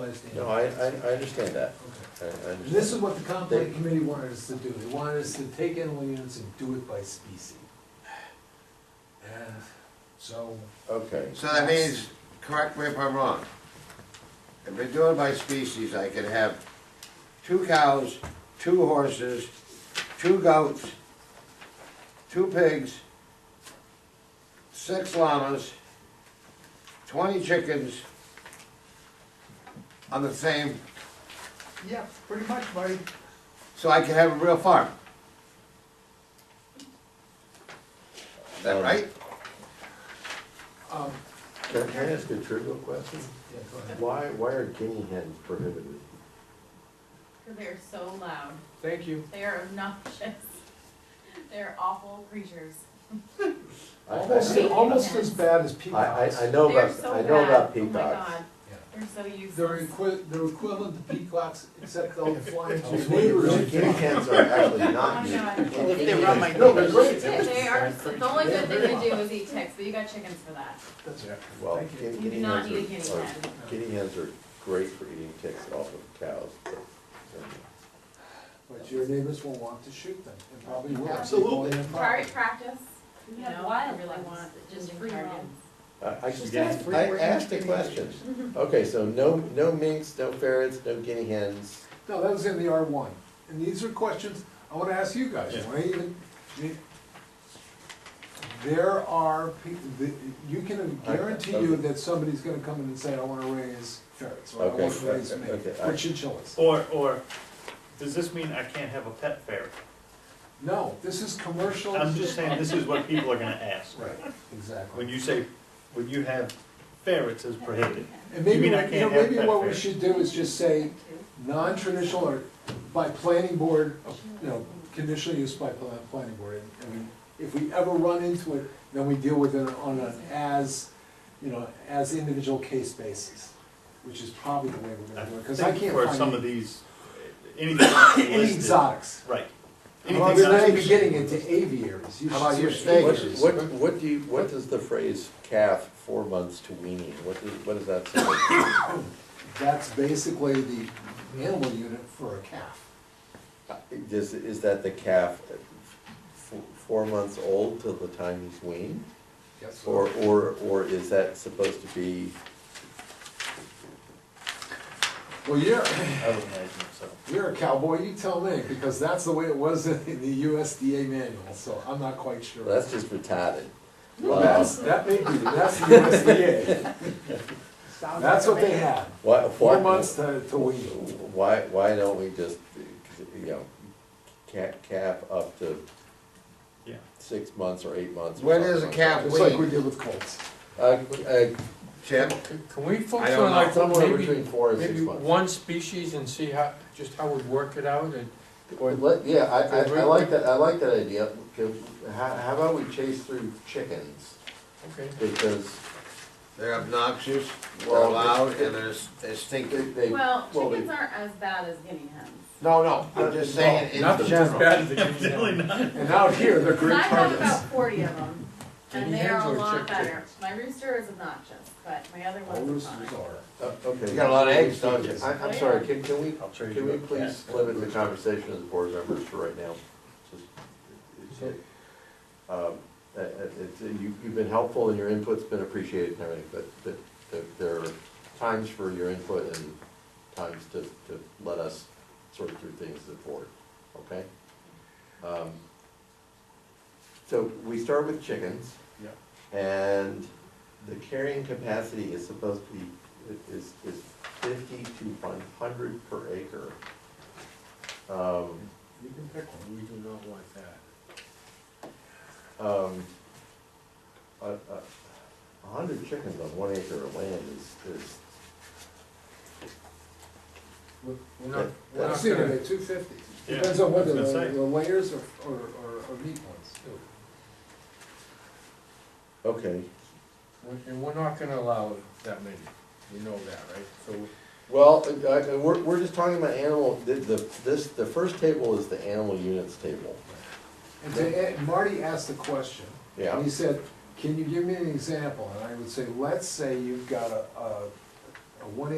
understand. No, I, I, I understand that. Okay. I, I understand. This is what the comp plan committee wanted us to do, they wanted us to take animal units and do it by species. And so, Okay, So that means, correct me if I'm wrong, if we're doing by species, I could have two cows, two horses, two goats, two pigs, six llamas, twenty chickens on the same, Yeah, pretty much, buddy. so I could have a real farm. Is that right? um, can can I ask a trivial question? yeah, go ahead. Why, why are guinea hens prohibited? They're so loud. Thank you. They are obnoxious. They're awful creatures. I- I- Almost, almost as bad as I, I, peacocks. I know Oh, They're about, so I know about bad. peacocks. Oh my god, Yeah. they're so They're useless. equi, they're equivalent to peacocks, except they'll fly into your Guinea neighborhood. guinea hens are actually Oh not my meat. god. If they were on my No, they're neighbors. great. They are, the only good thing to do is eat ticks, but you got chickens for that. That's right. Well, Thank you. guinea- You do guinea not hens need a are- guinea are- hen. Guinea hens are great for eating ticks off of cows, but, uh, But your neighbors will want to shoot them, and probably will. Absolutely. Target practice, you We know, have I wild really ones want that just just free free roam. targets. I, I Just just asked, ask for I it, we're asked a guinea question. Mm-hmm. Okay, so no, no minks, no ferrets, no guinea hens. No, that was in the R one, and these are questions I wanna ask you guys, Yeah. why even, I mean, there are, peo- the- you can I- guarantee you okay. that somebody's gonna come in and say, I wanna raise ferrets, or I Okay, wanna raise okay, mink, okay, I- or chinchillas. Or, or, does this mean I can't have a pet ferret? No, this is commercial. I'm just saying, this is what people are gonna ask. Right, When exactly. you say, when you have ferrets is prohibited. And you maybe, mean I you know, can't have maybe pet what we ferrets? should do is just say, non-traditional or by planning board, you know, conditional use by pla- planning board. And I mean, if we ever run into it, then we deal with it on an as, you know, as individual case basis, which is probably the way we're gonna do it, because I think can't For some find of any- these, anything that's any listed- exotics. Right. We're Anything not that's- even getting into aviaries. You How should about say your snake? What, aviaries. what, what do you, what does the phrase calf four months to weaning, what does, what does that say? That's basically the animal unit for a calf. Is, is that the calf at f- four months old till the time he's weaned? Yes. Or, or, or is that supposed to be, Well, you're, I would imagine so. You're a cowboy, you tell me, because that's the way it was in the USDA manual, so I'm not quite sure. that's just retarded. Well, that's, that may be, that's the USDA, Sounds that's like what a they man. had, Why, four why, months to, to wean. why, why don't we just, you know, cap, cap up to Yeah. six months or eight months? or When is something a like calf It's like we did with colts. that? Uh, uh, Chip? Can we I focus don't on like know. Somewhere between maybe, four and six maybe months. one species and see how, just how we'd work it out and, or Let- yeah, I, I, Agree I with like you? that, I like that idea, because how, how about we chase through chickens? Okay. Because They're obnoxious, they're Well, loud, they- and they're, s- they stink. they, they. Well, they- chickens aren't as bad as guinea hens. No, no, I'm just saying in Nothing's as general. bad as the guinea Really hen. not. And out here, they're And great I have targets. about forty of them, and Guinea they hens are a or lot chick- better. My rooster is obnoxious, but my other All ones are roosters fine. are. Uh, You Okay, got a I, lot of eggs, don't you? I'm sorry, can, can we, can we please limit the conversation as board members for right now? Just- it's- Um, uh, uh, it's, uh, you, you've been helpful and your input's been appreciated and everything, but, but there, there are times for your input and times to, to let us sort through things as a board, okay? Um, So we start with chickens. Yeah. And the carrying capacity is supposed to be, is, is fifty to one hundred per acre. Um, You can pick one, we do not want that. um, a, a, a hundred chickens on one acre of land is, is, We're we're not, we're I've not seen it gonna, at two fifty, Yeah, depends on I was whether gonna the say. the layers or, or, or or meat ones, too. okay. we're- and we're not gonna allow that many, we know that, right? So, Well, I- I- we're, we're just talking about animal, the, the, this, the first table is the animal units table. And to- and Marty asked the question. Yeah. And he said, can you give me an example? And I would say, let's say you've got a, a, a one